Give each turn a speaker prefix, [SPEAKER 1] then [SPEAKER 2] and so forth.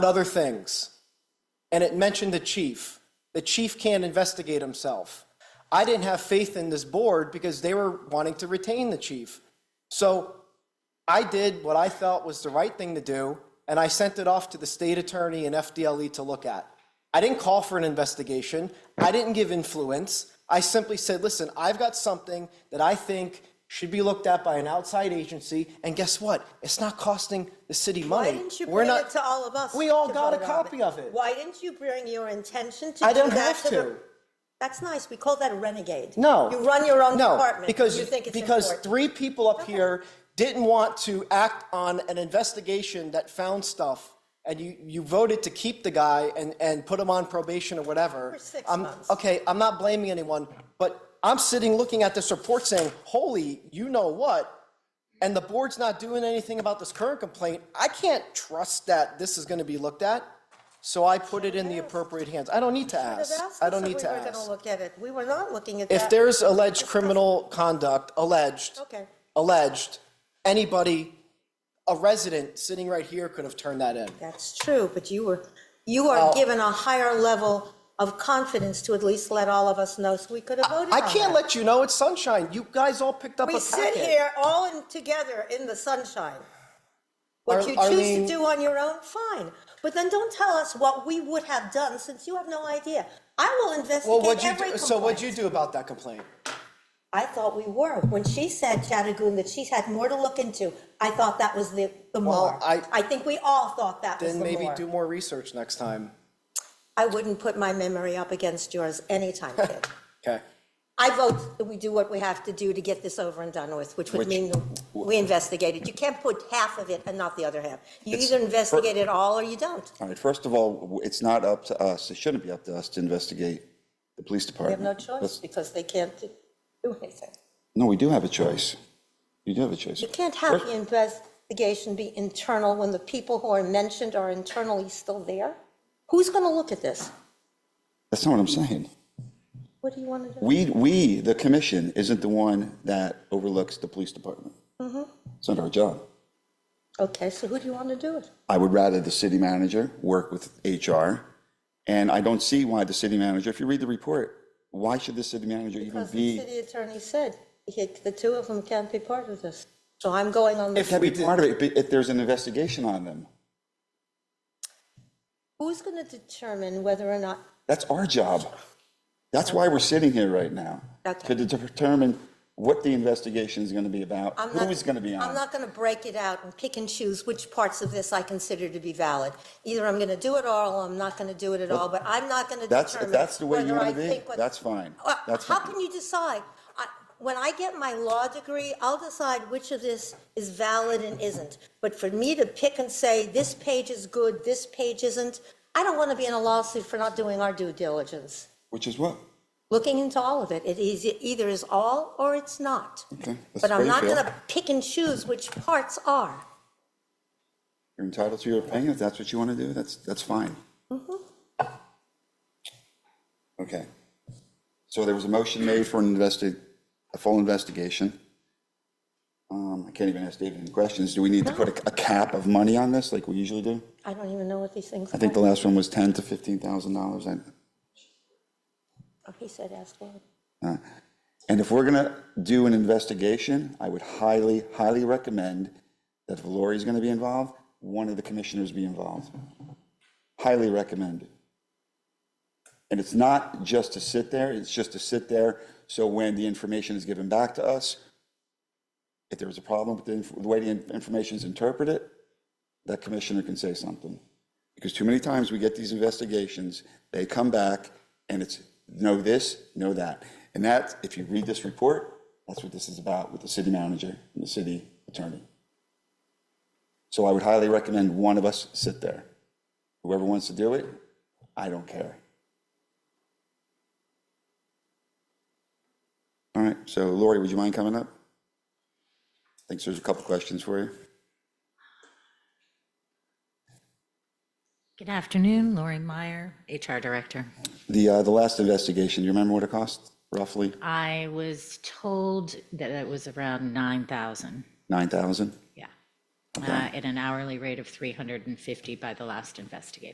[SPEAKER 1] other things. And it mentioned the chief. The chief can't investigate himself. I didn't have faith in this board because they were wanting to retain the chief. So I did what I felt was the right thing to do, and I sent it off to the state attorney and FDLE E to look at. I didn't call for an investigation. I didn't give influence. I simply said, listen, I've got something that I think should be looked at by an outside agency, and guess what? It's not costing the city money.
[SPEAKER 2] Why didn't you
[SPEAKER 1] We're
[SPEAKER 2] bring
[SPEAKER 1] not-
[SPEAKER 2] it to all of us?
[SPEAKER 1] We all
[SPEAKER 2] to
[SPEAKER 1] got a
[SPEAKER 2] vote on
[SPEAKER 1] copy of it.
[SPEAKER 2] Why didn't you bring your intention to
[SPEAKER 1] I
[SPEAKER 2] do
[SPEAKER 1] don't
[SPEAKER 2] that
[SPEAKER 1] have
[SPEAKER 2] the-
[SPEAKER 1] to.
[SPEAKER 2] That's nice. We call that a renegade.
[SPEAKER 1] No.
[SPEAKER 2] You run your own
[SPEAKER 1] no,
[SPEAKER 2] department.
[SPEAKER 1] Because,
[SPEAKER 2] You think it's
[SPEAKER 1] because
[SPEAKER 2] important.
[SPEAKER 1] three people up here didn't want to act on an investigation that found stuff, and you, you voted to keep the guy and, and put him on probation or whatever.
[SPEAKER 2] For six
[SPEAKER 1] I'm-
[SPEAKER 2] months.
[SPEAKER 1] Okay, I'm not blaming anyone, but I'm sitting looking at this report saying, holy, you know what? And the board's not doing anything about this current complaint. I can't trust that this is going to be looked at. So I put it in the appropriate hands. I don't need to
[SPEAKER 2] Should've
[SPEAKER 1] ask.
[SPEAKER 2] asked
[SPEAKER 1] I
[SPEAKER 2] us
[SPEAKER 1] don't
[SPEAKER 2] if
[SPEAKER 1] need to
[SPEAKER 2] We were
[SPEAKER 1] ask.
[SPEAKER 2] going to look at it. We were not looking at that.
[SPEAKER 1] If there's alleged criminal conduct, alleged.
[SPEAKER 2] Okay.
[SPEAKER 1] Alleged, anybody, a resident sitting right here could have turned that in.
[SPEAKER 2] That's true, but you were, you
[SPEAKER 1] Oh.
[SPEAKER 2] are given a higher level of confidence to at least let all of us know so we could have voted on
[SPEAKER 1] I can't
[SPEAKER 2] that.
[SPEAKER 1] let you know, it's sunshine. You guys all picked up a
[SPEAKER 2] We
[SPEAKER 1] packet.
[SPEAKER 2] sit here all in, together in the sunshine. What
[SPEAKER 1] Ar-
[SPEAKER 2] you choose to
[SPEAKER 1] Arlene-
[SPEAKER 2] do on your own, fine. But then don't tell us what we would have done since you have no idea. I will
[SPEAKER 1] Well, what'd
[SPEAKER 2] investigate
[SPEAKER 1] you,
[SPEAKER 2] every
[SPEAKER 1] do- so what'd you
[SPEAKER 2] complaint.
[SPEAKER 1] do about that complaint?
[SPEAKER 2] I thought we were. When she said, Chattagoon, that she had more to look into, I thought that was the, the more.
[SPEAKER 1] I-
[SPEAKER 2] I think we all thought that was the
[SPEAKER 1] Then maybe do
[SPEAKER 2] more.
[SPEAKER 1] more research next time,
[SPEAKER 2] I wouldn't put my memory up against yours anytime, kid.
[SPEAKER 1] okay?
[SPEAKER 2] I vote that we do what we have to do to get this over and done with, which would
[SPEAKER 1] Which-
[SPEAKER 2] mean that we investigate it. You can't put half of it and not the other half. You
[SPEAKER 3] It's-
[SPEAKER 2] either investigate it all or you don't.
[SPEAKER 3] All right, first of all, w- it's not up to us, it shouldn't be up to us to investigate the police
[SPEAKER 2] We
[SPEAKER 3] department.
[SPEAKER 2] have no choice
[SPEAKER 3] Let's-
[SPEAKER 2] because they can't do do anything.
[SPEAKER 3] No, we do have a choice. You do have a choice.
[SPEAKER 2] You can't have the investigation be internal when the people who are mentioned are internally still there. Who's going to look at this?
[SPEAKER 3] That's not what I'm saying.
[SPEAKER 2] What do you want to do?
[SPEAKER 3] We, we, the commission, isn't the one that overlooks the police department.
[SPEAKER 2] Mm-hmm.
[SPEAKER 3] It's not our job.
[SPEAKER 2] Okay, so who do you want to do it?
[SPEAKER 3] I would rather the city manager work with HR, and I don't see why the city manager, if you read the report, why should the city manager even
[SPEAKER 2] Because the
[SPEAKER 3] be?
[SPEAKER 2] city attorney said, he- the two of them can't be part of this. So I'm going on the
[SPEAKER 1] If-
[SPEAKER 3] Can't
[SPEAKER 1] we
[SPEAKER 3] be
[SPEAKER 1] did-
[SPEAKER 3] part of it, but if there's an investigation on them.
[SPEAKER 2] Who's going to determine whether or not,
[SPEAKER 3] That's our job. That's why we're sitting here right now.
[SPEAKER 2] Okay.
[SPEAKER 3] To determine what the investigation is going to be about,
[SPEAKER 2] I'm not.
[SPEAKER 3] who is going to be on
[SPEAKER 2] I'm
[SPEAKER 3] it.
[SPEAKER 2] not going to break it out and pick and choose which parts of this I consider to be valid. Either I'm going to do it all, or I'm not going to do it at all, but I'm not going to
[SPEAKER 3] That's,
[SPEAKER 2] determine.
[SPEAKER 3] if that's the way you
[SPEAKER 2] whether I
[SPEAKER 3] want to be,
[SPEAKER 2] think what-
[SPEAKER 3] that's fine.
[SPEAKER 2] Uh,
[SPEAKER 3] That's
[SPEAKER 2] How
[SPEAKER 3] fine.
[SPEAKER 2] can you decide? I- When I get my law degree, I'll decide which of this is valid and isn't. But for me to pick and say, this page is good, this page isn't, I don't want to be in a lawsuit for not doing our due diligence.
[SPEAKER 3] Which is what?
[SPEAKER 2] looking into all of it. It is, it either is all or it's not.
[SPEAKER 3] Okay, that's
[SPEAKER 2] But
[SPEAKER 3] how
[SPEAKER 2] I'm
[SPEAKER 3] you
[SPEAKER 2] not
[SPEAKER 3] feel.
[SPEAKER 2] gonna pick and choose which parts are.
[SPEAKER 3] You're entitled to your opinion. If that's what you want to do, that's, that's fine.
[SPEAKER 2] Mm-hmm.
[SPEAKER 3] Okay. So there was a motion made for an investi, a full investigation. Um, I can't even ask David any questions. Do we need to put a, a cap of money on this like we usually do?
[SPEAKER 2] I don't even know what these things are.
[SPEAKER 3] I think the last one was ten to fifteen thousand dollars.
[SPEAKER 2] Oh, He said ask one.
[SPEAKER 3] uh, And if we're gonna do an investigation, I would highly, highly recommend that if Lori's gonna be involved, one of the commissioners be involved. Highly recommend. And it's not just to sit there, it's just to sit there, so when the information is given back to us, if there was a problem with the, inf- the way the in- information is interpreted, that commissioner can say something. Because too many times we get these investigations, they come back and it's know this, know that. And that, if you read this report, that's what this is about with the city manager and the city attorney. So I would highly recommend one of us sit there. Whoever wants to do it, I don't care. All right, so Lori, would you mind coming up? Thinks there's a couple questions for you.
[SPEAKER 4] Good afternoon, Lori Meyer, HR Director.
[SPEAKER 3] The, uh, the last investigation, do you remember what it cost roughly?
[SPEAKER 4] I was told that it was around 9,000.
[SPEAKER 3] Nine thousand?
[SPEAKER 4] Yeah. uh, at an hourly rate of 350 by the last investigator.